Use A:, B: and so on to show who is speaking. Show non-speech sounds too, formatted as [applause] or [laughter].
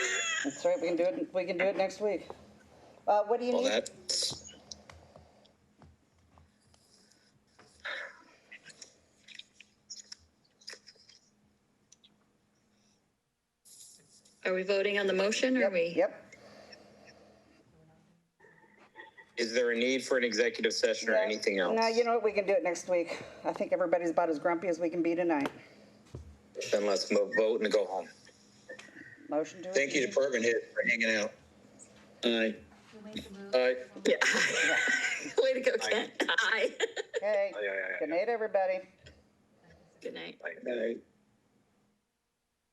A: That's right, we can do it, we can do it next week. Uh, what do you
B: Well,
A: need?
B: that's.
C: Are we voting on the motion or are we?
A: Yep,
B: Is there a need for an executive session or
A: Yeah.
B: anything else?
A: no, you know what, we can do it next week. I think everybody's about as grumpy as we can be tonight.
B: Then let's mo- vote and go home.
A: Motion to.
B: Thank you, department head, for hanging out. Aye. Aye.
C: Yeah. [laughs] Way to go, Ken. Aye.
A: Okay,
B: Aye, aye, aye,
A: good night, everybody.
C: Good night.
B: Aye.